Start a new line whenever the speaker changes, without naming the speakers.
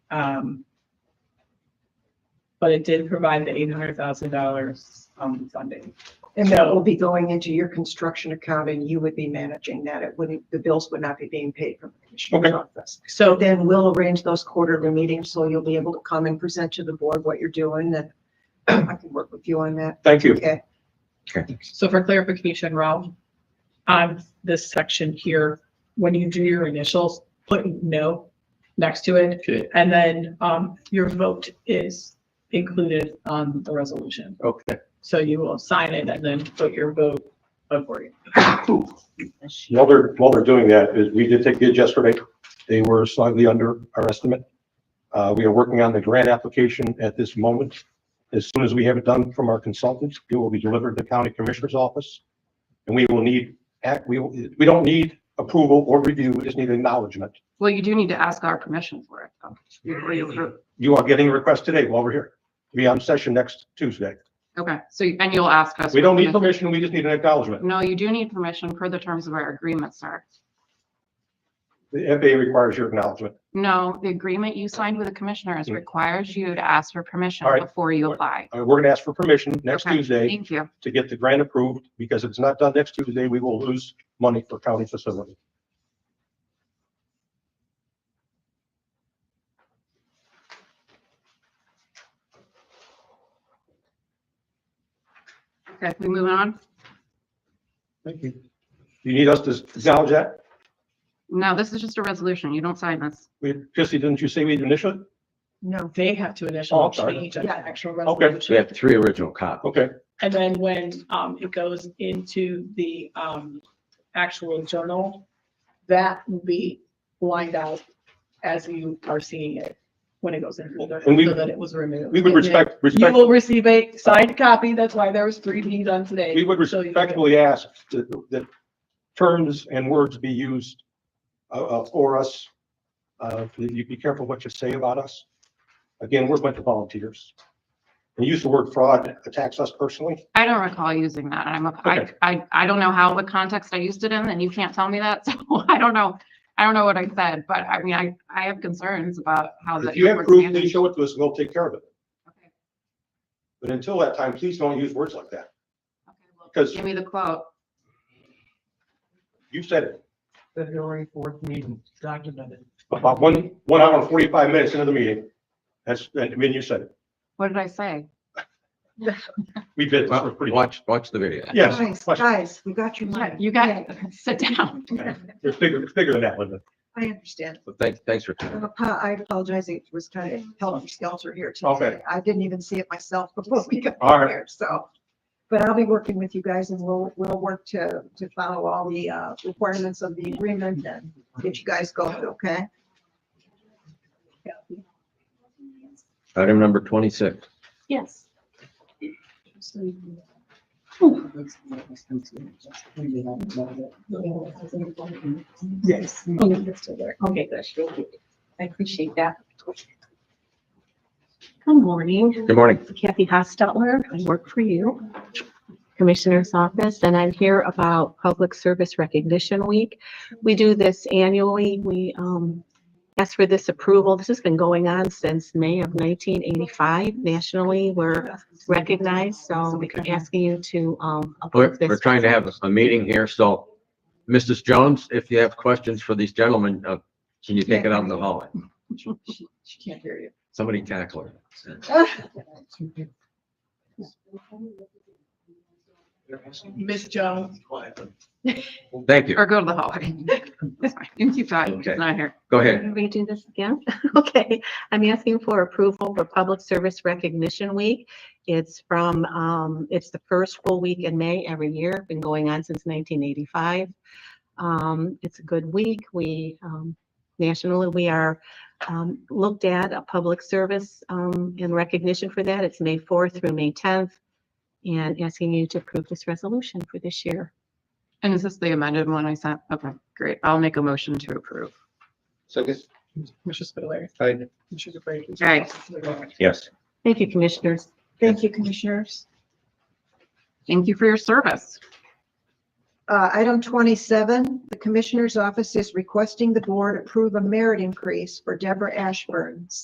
Um, But it did provide the eight hundred thousand dollars um funding.
And that will be going into your construction account and you would be managing that. It wouldn't, the bills would not be being paid from the commissioner's
Okay.
office.
So
But then we'll arrange those quarterly meetings, so you'll be able to come and present to the board what you're doing and I can work with you on that.
Thank you.
Okay.
So for clarification, Ralph, on this section here, when you do your initials, put no next to it.
Okay.
And then um, your vote is included on the resolution.
Okay.
So you will sign it and then put your vote accordingly.
While they're, while they're doing that, is we did take bids yesterday. They were slightly under our estimate. Uh, we are working on the grant application at this moment. As soon as we have it done from our consultants, it will be delivered to county commissioner's office. And we will need, act, we, will- we don't need approval or review, we just need acknowledgement.
Well, you do need to ask our permission for it, though. before you approve.
You are getting a request today while we're here. Be on session next Tuesday.
Okay, so, you- and you'll ask us.
We don't need
for permission.
permission, we just need an acknowledgement.
No, you do need permission per the terms of our agreement, sir.
The FAA requires your acknowledgement.
No, the agreement you signed with the commissioners
Hmm.
requires you to ask for permission
All right.
before you apply.
Uh, we're gonna ask for permission next
Okay,
Tuesday.
Thank you.
to get the grant approved, because if it's not done next Tuesday, we will lose money for county facility.
Okay, we moving on?
Thank you. You need us to acknowledge that?
No, this is just a resolution. You don't sign this.
We, Christie, didn't you say we initially?
No.
They have to
Oh,
initial
I'm sorry.
change an
Yeah.
actual
Okay.
We
resolution.
have three original copies.
Okay,
And then when um, it goes into the um, actual journal, that will be lined out as you are seeing it when it goes in.
And we-
So that it was removed.
we would
And then-
respect,
You
respect,
will receive a signed copy. That's why there was three being done today.
we would
So you-
respectfully ask that, that terms and words be used uh, uh, for us. Uh, that you be careful what you say about us. Again, we're a bunch of volunteers. And use the word fraud attacks us personally.
I don't recall using that. I'm, a- I,
Okay.
I, I don't know how the context I used it in and you can't tell me that. So I don't know. I don't know what I said, but I mean, I, I have concerns about how the.
If you have
was
proof, then
managed.
show it to us, we'll take care of it.
Okay,
But until that time, please don't use words like that,
okay, well,
because
Give me the quote.
you said it.
February fourth meeting documented.
About one, one hour and forty-five minutes into the meeting. That's, I mean, you said it.
What did I say?
We did. this was pretty-
Watch, watch the video.
Yes,
Guys,
question.
guys, we got you.
Yeah, You got, sit down.
It's bigger, it's bigger than that, Linda.
I understand.
But thanks, thanks for.
I'm apo- I apologize. It was kind of helter skelter here today.
Okay.
I didn't even see it myself before we got
All right.
here, so. But I'll be working with you guys and we'll, we'll work to, to follow all the uh, requirements of the agreement and get you guys going, okay?
Item number twenty-six.
Yes.
Yes.
Okay, good. Thank you. I appreciate that. Good morning,
Good morning.
Kathy Hostetler. I work for you, Commissioner's Office, and I'm here about Public Service Recognition Week. We do this annually. We um, ask for this approval. This has been going on since May of 1985 nationally. We're recognized, so we're asking you to um,
We're,
approve this.
we're trying to have a meeting here, so Mrs. Jones, if you have questions for these gentlemen, uh, can you take it out in the hallway?
She can't hear you.
Somebody tackle her.
Ms. Jones,
Thank you.
Or go to the hallway. That's fine. You can keep talking.
Okay.
It's not here.
Go ahead.
Can we do this again? Okay, I'm asking for approval for Public Service Recognition Week. It's from, um, it's the first full week in May every year, been going on since nineteen eighty-five. Um, it's a good week. We, um, nationally, we are, um, looked at a public service, um, in recognition for that. It's May fourth through May tenth. And asking you to approve this resolution for this year.
And is this the amended one I sent? Okay, great. I'll make a motion to approve.
Second.
Commissioner Spudler.
Aye.
Commissioner DeBrey.
Aye.
Yes.
Thank you, Commissioners.
Thank you, commissioners.
Thank you for your service.
Uh, item twenty-seven, the Commissioner's Office is requesting the board approve a merit increase for Deborah Ashburn,